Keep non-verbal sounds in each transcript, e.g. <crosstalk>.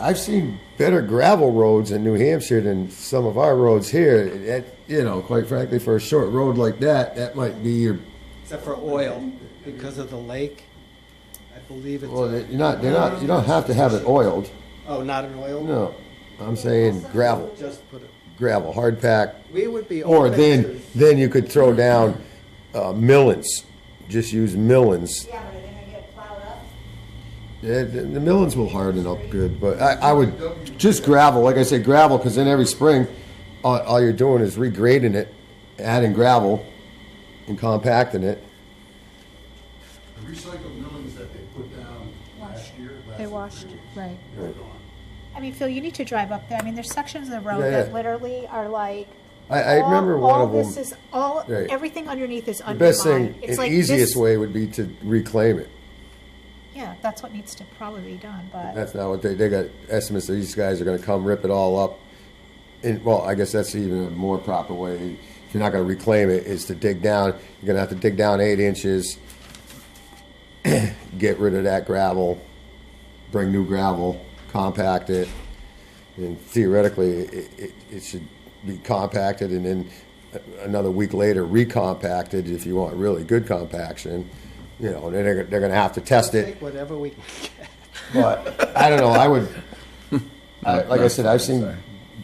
I've seen better gravel roads in New Hampshire than some of our roads here. That, you know, quite frankly, for a short road like that, that might be your. except for oil, because of the lake. I believe it's, Well, a- they're not. They're not. You don't have to have it oiled. oh, not an oil? No, I'm saying gravel, Just put it, gravel, hard pack, we would be Or open then, to, then you could throw down uh, millings. Just use millings. Yeah, but are they gonna get plowed up? Yeah, the, the millings will harden up good, but I, I would just gravel. Like I said, gravel, because then every spring, all, all you're doing is regrading it, adding gravel, and compacting it. The recycled millings that they put down last year, last They year, washed, right. they're gone. I mean, Phil, you need to drive up there. I mean, there's sections of the road Yeah, that yeah. literally are like. I- I all- remember one all of 'em- This is all. Right. Everything underneath is The undermined. best thing, It's the like easiest this- way would be to reclaim it. Yeah, that's what needs to probably be done. But That's not what they, they got estimates that these guys are gonna come rip it all up. And, well, I guess that's even a more proper way, if you're not gonna reclaim it, is to dig down, you're gonna have to dig down eight inches, <clears throat> get rid of that gravel, bring new gravel, compact it, and theoretically, it, it, it should be compacted and then a- another week later recompacted if you want really good compaction. You know, and then they're, they're gonna have to test it. take whatever we can get. But I don't know. I would, I, like I said, I've seen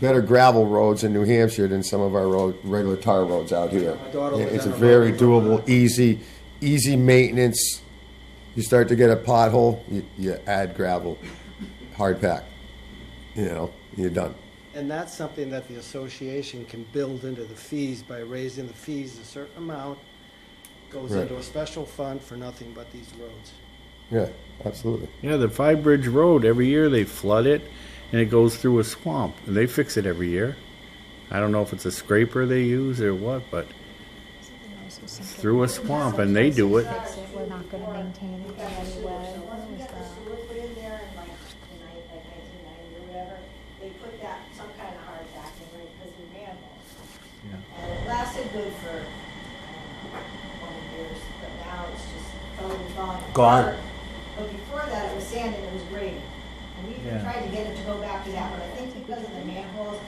better gravel roads in New Hampshire than some of our road, regular tar roads out here. My daughter lives It's a on a very road. doable, easy, easy maintenance. You start to get a pothole, you, you add gravel, hard pack. You know, you're done. And that's something that the association can build into the fees by raising the fees a certain amount, goes Right. into a special fund for nothing but these roads. Yeah, absolutely. Yeah, the Five Bridge Road, every year they flood it and it goes through a swamp. And they fix it every year. I don't know if it's a scraper they use or what, but through a swamp and they do it. we're not going to maintain it in any way. So once we got the sewer put in there in like, in nine- like nineteen ninety or whatever, they put that, some kind of hard back in, right, because we ran them. And it lasted good for, I don't know, twenty years, but now it's just totally falling apart. Gone. But before that, it was sand and it was graded. And we even tried to get it to go back to that, but I think because of the manholes,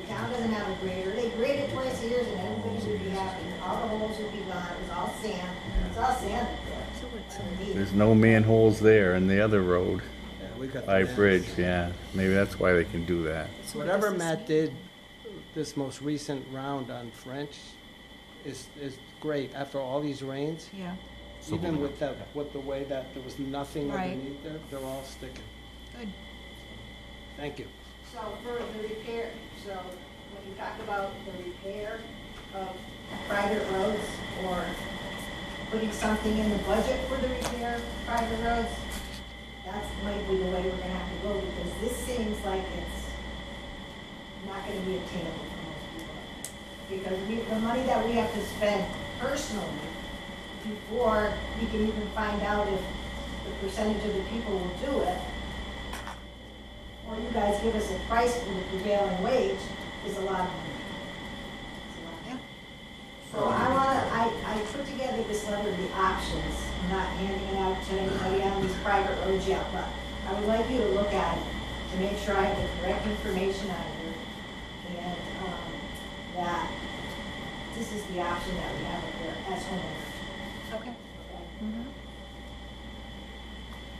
the town doesn't have a grader. They grade it twice a year and everybody would be happy. All the holes would be gone, it was all sand, it's all sand up there. Underneath. There's no manholes there in the other road. Yeah, we got the Five maps. Bridge, yeah. Maybe that's why they can do that. Whatever Matt did, this most recent round on French is, is great. After all these rains, Yeah. even with that, with the way that there was nothing Right. underneath there, they're all sticking. Good. Thank you. So for the repair, so when you talk about the repair of private roads or putting something in the budget for the repair of private roads, that's might be the way we're gonna have to go because this seems like it's not gonna be attainable for most people. Because we, the money that we have to spend personally before we can even find out if the percentage of the people will do it, or you guys give us a price for the prevailing wage is a lot of money. It's a lot. So I wanna, I, I put together this letter of the options, I'm not handing it out to anybody on these private roads yet, but I would like you to look at it to make sure I have the correct information on here. And, um, that this is the option that we have up there as homeowners. Okay. oh okay?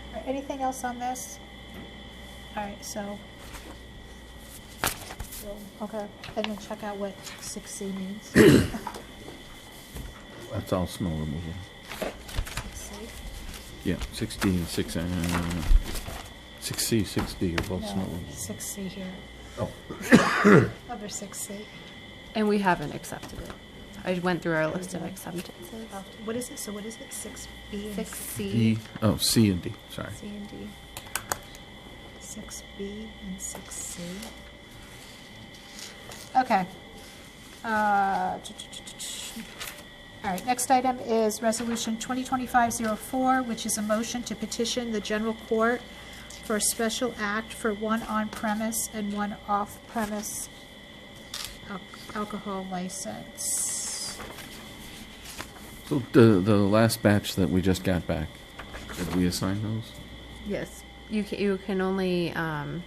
All right, Anything else on this? All right, so. so, Okay, and then check out what six <coughs> C means. Six That's all snow removal. C. Yeah, six D and six, uh, six C, six D are both snow No, removal. six C here. <coughs> Under six C. And we haven't accepted it. I went through our list of acceptances. What is it? So what is it? Six B and Six C, E, oh, C and D, sorry. C and D. Six B and six C. Okay. Uh, ch- ch- ch- ch- All right, next item is Resolution 2025-04, which is a motion to petition the general court for a special act for one on-premise and one off-premise al- alcohol license. So the, the last batch that we just got back, did we assign those? Yes. You can, you can only, um,